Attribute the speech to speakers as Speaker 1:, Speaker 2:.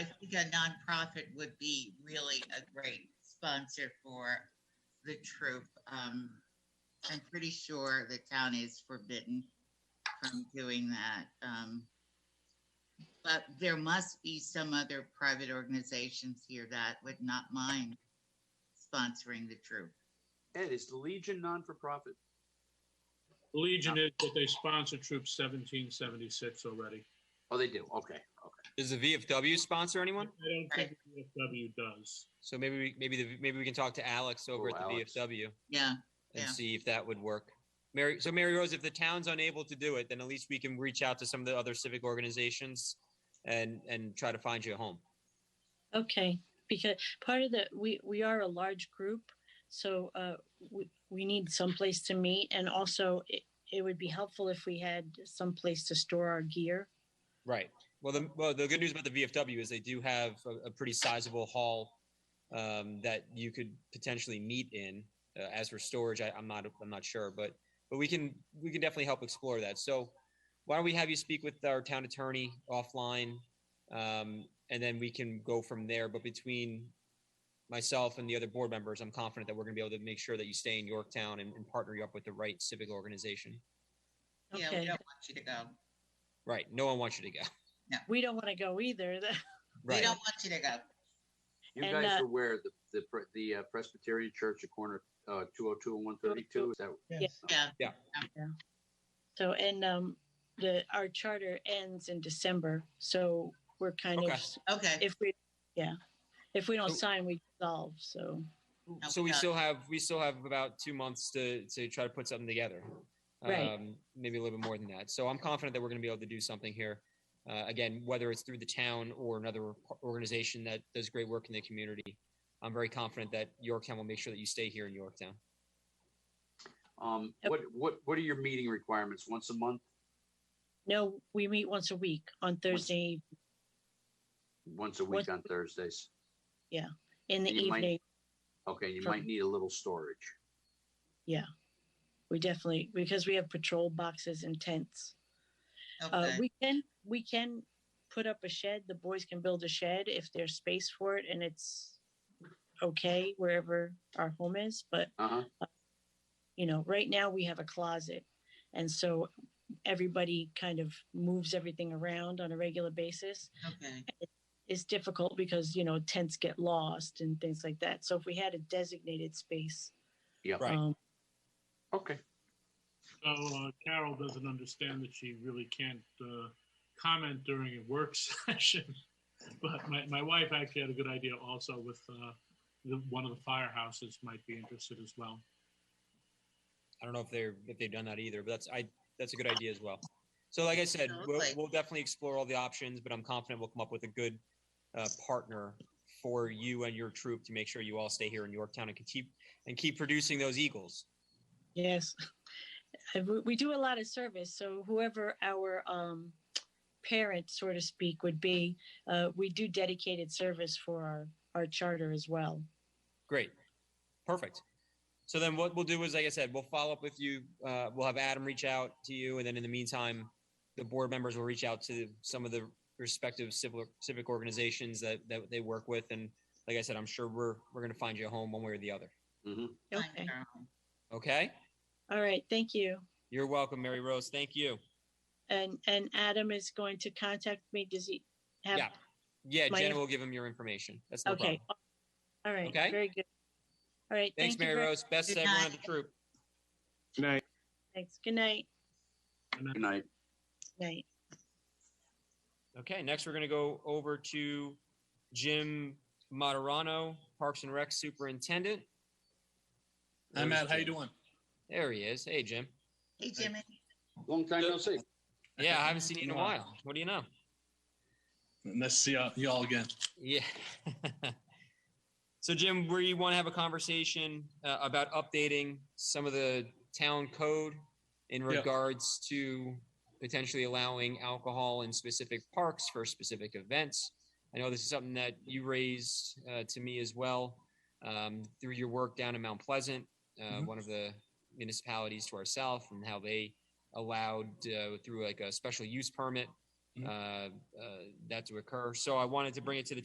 Speaker 1: think a nonprofit would be really a great sponsor for the troop. Um, I'm pretty sure the town is forbidden from doing that. Um, but there must be some other private organizations here that would not mind sponsoring the troop.
Speaker 2: Ed, is the Legion non-for-profit?
Speaker 3: Legion is, but they sponsor Troop 1776 already.
Speaker 2: Oh, they do. Okay, okay.
Speaker 4: Does the VFW sponsor
Speaker 3: I
Speaker 4: anyone?
Speaker 3: don't think VFW does.
Speaker 4: So maybe, we maybe, the maybe we can talk to Alex over
Speaker 2: Oh,
Speaker 4: at the
Speaker 2: Alex.
Speaker 4: VFW
Speaker 1: Yeah,
Speaker 4: and
Speaker 1: Yeah.
Speaker 4: see if that would work. Mary, so Mary Rose, if the town's unable to do it, then at least we can reach out to some of the other civic organizations and, and try to find you a home.
Speaker 5: Okay, because part of the, we, we are a large group, so uh, we, we need someplace to meet. And also, it, it would be helpful if we had someplace to store our gear.
Speaker 4: Right. Well, the, well, the good news about the VFW is they do have a, a pretty sizable hall um, that you could potentially meet in. Uh, as for storage, I, I'm not, I'm not sure, but but we can we can definitely help explore that. So why don't we have you speak with our town attorney offline, um, and then we can go from there. But between myself and the other board members, I'm confident that we're going to be able to make sure that you stay in Yorktown and, and partner you up with the right civic organization.
Speaker 1: yeah, we
Speaker 5: Okay.
Speaker 1: don't want you to go.
Speaker 4: Right. No one wants you to go.
Speaker 5: We don't want to go either.
Speaker 1: We
Speaker 4: Right.
Speaker 1: don't want you to go.
Speaker 2: You
Speaker 5: And,
Speaker 2: guys
Speaker 5: uh,
Speaker 2: are aware the the pre- the uh, Presbyterian Church, at corner uh, 202 and 132. Is that
Speaker 1: Yeah. Um,
Speaker 4: Yeah.
Speaker 5: So, and um, the, our charter ends in December, so we're kind
Speaker 4: Okay.
Speaker 5: of,
Speaker 1: Okay.
Speaker 5: if we, yeah, if we don't
Speaker 4: So-
Speaker 5: sign, we dissolve, so.
Speaker 4: So we
Speaker 1: Okay.
Speaker 4: still have, we still have about two months to, to try to put something together.
Speaker 5: Right.
Speaker 4: Um, Maybe a little bit more than that. So I'm confident that we're gonna be able to do something here. Uh, again, whether it's through the town or another organization that does great work in the community. I'm very confident that Yorktown will make sure that you stay here in Yorktown.
Speaker 2: um
Speaker 5: Yep.
Speaker 2: what what what are your meeting requirements? Once a month,
Speaker 5: No, we meet once a week on Thursday
Speaker 2: once a
Speaker 5: Once
Speaker 2: week
Speaker 5: a
Speaker 2: on Thursdays.
Speaker 5: in the
Speaker 2: You might-
Speaker 5: evening.
Speaker 2: Okay, you
Speaker 5: Sure.
Speaker 2: might need a little storage.
Speaker 5: We definitely, because we have patrol boxes and tents. Uh,
Speaker 1: Okay.
Speaker 5: we can, we can put up a shed. The boys can build a shed if there's space for it and it's okay wherever our home is. But,
Speaker 2: Uh huh.
Speaker 5: you know, right now we have a closet. And so everybody kind of moves everything around on a regular basis.
Speaker 1: Okay.
Speaker 5: It's difficult because, you know, tents get lost and things like that. So if we had a designated space,
Speaker 2: Yeah.
Speaker 4: Right.
Speaker 5: um,
Speaker 2: Okay.
Speaker 3: So uh, Carol doesn't understand that she really can't uh, comment during a work session. But my, my wife actually had a good idea also with uh, the, one of the firehouses might be interested as well.
Speaker 4: I don't know if they're, if they've done that either, but that's, I, that's a good idea as well. So like I said, we'll,
Speaker 1: Absolutely.
Speaker 4: we'll definitely explore all the options, but I'm confident we'll come up with a good uh, partner for you and your troop to make sure you all stay here in Yorktown and can keep, and keep producing those Eagles.
Speaker 5: Yes. And we- We do a lot of service, so whoever our um, parent, so to speak, would be, uh, we do dedicated service for our, our charter as well.
Speaker 4: Great. Perfect. So then what we'll do is, like I said, we'll follow up with you. Uh, we'll have Adam reach out to you. And then in the meantime, the board members will reach out to some of the respective civic, civic organizations that, that they work with. And like I said, I'm sure we're, we're going to find you a home one way or the other.
Speaker 2: hmm
Speaker 1: Fine,
Speaker 5: Okay.
Speaker 1: Carol.
Speaker 4: Okay.
Speaker 5: All right. Thank you.
Speaker 4: You're welcome, Mary Rose. Thank you.
Speaker 5: And and Adam is going to contact me. Does he have?
Speaker 4: Yeah. Yeah.
Speaker 5: My-
Speaker 4: Jen will give him your information. That's no
Speaker 5: Okay.
Speaker 4: problem.
Speaker 5: All right.
Speaker 4: Okay.
Speaker 5: Very good. All right.
Speaker 4: Thanks,
Speaker 5: thank you
Speaker 4: Mary
Speaker 5: very-
Speaker 4: Rose. Best to
Speaker 1: Good
Speaker 4: everyone
Speaker 1: night.
Speaker 4: on the troop.
Speaker 5: Thanks. Good night.
Speaker 3: And I-
Speaker 2: Good night.
Speaker 5: Night.
Speaker 4: Okay, next we're going to go over to Jim Moderano, Parks and Rec Superintendent.
Speaker 6: Hi,
Speaker 4: Where's
Speaker 6: Matt. How you
Speaker 4: Jim?
Speaker 6: doing?
Speaker 4: There he is. Hey, Jim.
Speaker 1: Hey, Jimmy.
Speaker 2: Long time no see.
Speaker 4: Yeah, I haven't seen you in a while. What do you know?
Speaker 6: Nice to see y'all- you all again.
Speaker 4: Yeah. so, Jim, we want to have a conversation uh, about updating some of the town code in
Speaker 6: Yeah.
Speaker 4: regards to potentially allowing alcohol in specific parks for specific events. I know this is something that you raised uh, to me as well um, through your work down in Mount Pleasant, uh,
Speaker 6: Mhm.
Speaker 4: one of the municipalities to our south, and how they allowed uh, through like a special use permit
Speaker 6: Mhm.
Speaker 4: uh, uh, that to occur. So I wanted to bring it to the